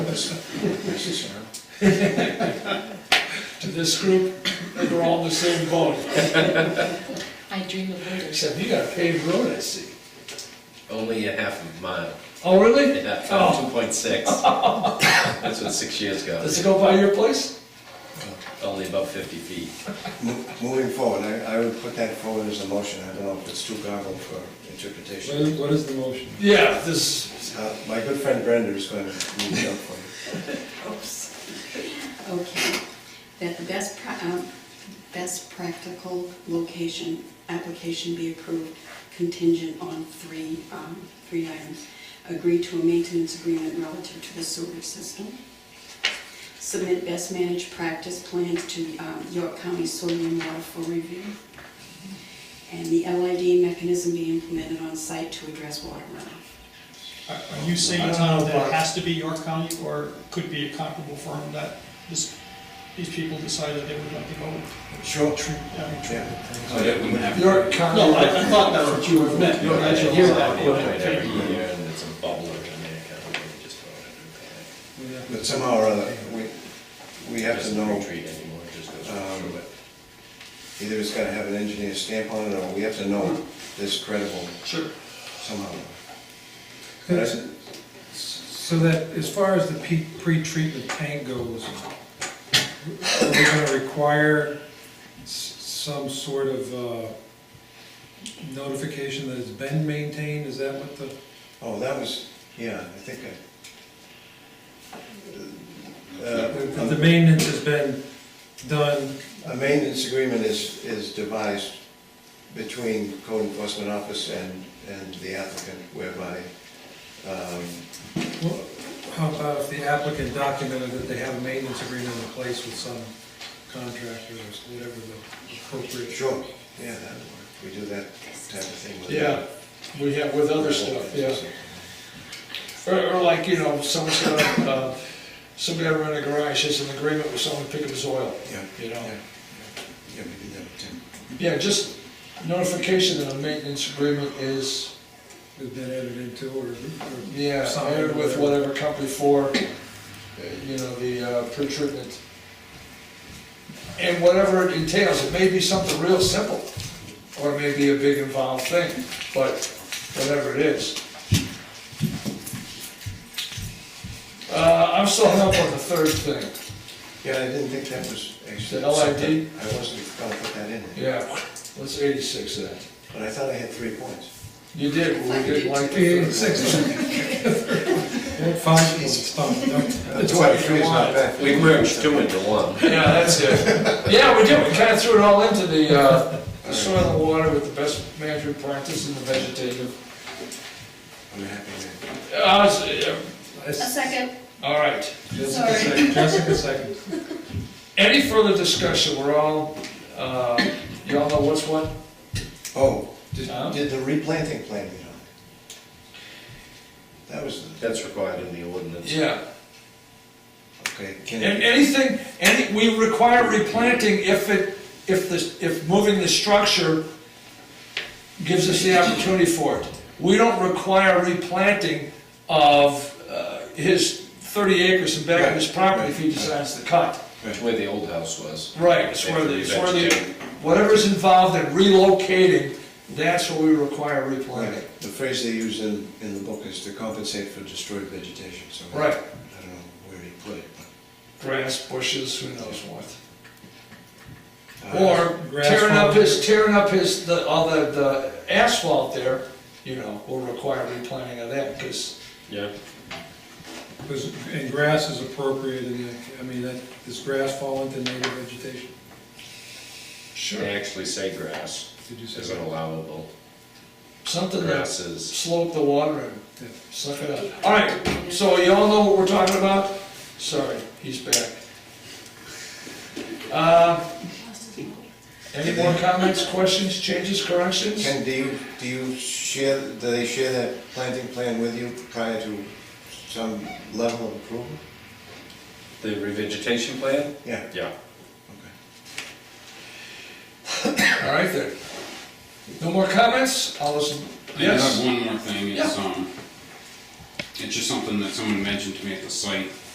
to this group, they're all in the same boat. I dream of murder. Except you got a paved road, I see. Only a half a mile, Oh, really? yeah, Oh, two point six. That's what six years ago, does it go by your place? only about fifty feet. Mo- Moving forward, I, I would put that forward as a motion, I don't know if it's too garbled for What interpretation. is, what is the motion? Yeah, this, Uh, My good friend Brenda is going to move it up for you. Oops. Okay, that the best, pra- um, best practical location application be approved contingent on three, um, three items. Agree to a maintenance agreement relative to the sewer system. Submit best managed practice plans to um, York County Soil and Water for review. And the LID mechanism be implemented on site to address water runoff. Are are you saying, Tom, that it has to be York County, or could be a comparable firm that this, these people decided they would like to go with? Sure. Oh, Yeah. Yeah. your car. No, I, I thought that's what you were meant. You know, I You're should hear right. that Okay. every year, and it's a bubbler in there, kind of, and just throw it But somehow or other, we, we in. have to Doesn't know, retreat anymore, it just goes right um, through it. either it's got to have an engineer stamp on it, or we have to know this credible Sure. somehow. But I said, So that, as far as the pe- pre-treatment tank goes, are we gonna require s- some sort of uh, notification that it's been maintained? Is that what the, Oh, that was, yeah, I think uh, I. if Uh, the maintenance has been done? A maintenance agreement is, is devised between code enforcement office and, and the applicant whereby, um, Well, How about if the applicant documented that they have a maintenance agreement in place with some contractor or whatever the appropriate? sure, yeah, that would work. We do that type of thing with. Yeah, we have with other stuff, yeah. Or, or like, you know, someone's gonna, uh, somebody gonna run a garage, has an agreement with someone to pick up his oil, Yeah, you know? yeah. Yeah, we did that with Tim. Yeah, just notification that a maintenance agreement is, Has been entered into or? or yeah, signed or hired with whatever company for, uh, you know, the uh, pre-treatment. And whatever it entails, it may be something real simple, or it may be a big involved thing, but whatever it is. Uh, I'm still hung up on the third thing, Yeah, I didn't think that was actually. The LID? something- I wasn't gonna put that in there, yeah, let's eighty-six that. but I thought I had three points. You did, we did like the third. Eight, six. Well, Five, it's fine. That's why three's not bad. We merged two into one. Yeah, that's it. Yeah, we did, we kind of threw it all into the uh, the soil and water with the best management practice and the vegetative. I'm happy with Uh, I was, uh, A second. All right, Jessica Sorry. second, Jessica second. any further discussion, we're all, uh, you all know what's what? it. Oh, did, Huh? did the replanting plan get on? That was, the- That's required in the ordinance. Yeah, okay, can and it, anything, any, we require replanting if it, if the, if moving the structure gives us the opportunity for it. We don't require replanting of uh, his thirty acres in back of his Right, property if he right. decides to cut. It's where the old house was. Right, it's where the, it's where the, whatever's involved in relocating, that's where we require replanting. right, the phrase they use in, in the book is to compensate for destroyed vegetation, so. I- Right. I don't know where he put it, Grass, bushes, who knows what. but. uh, Or grass tearing up farm. his, tearing up his, the, all the, the asphalt there, you know, will require replanting of that, because, Yeah. Was- And grass is appropriate in the, I mean, that, does grass fall into native vegetation? They actually say grass Did you say is that? allowable. something that Grass is slope the water and Yeah. suck it up. All right, so you all know what we're talking about? Sorry, he's back. Uh, any more comments, questions, changes, corrections? Ken, do you, do you share, do they share that planting plan with you prior to some level of approval? the revegetation plan? Yeah, Yeah. okay. All right then. No more comments? I'll listen. I Yes? have one more thing, it's, um, it's just something that someone mentioned to me at the site,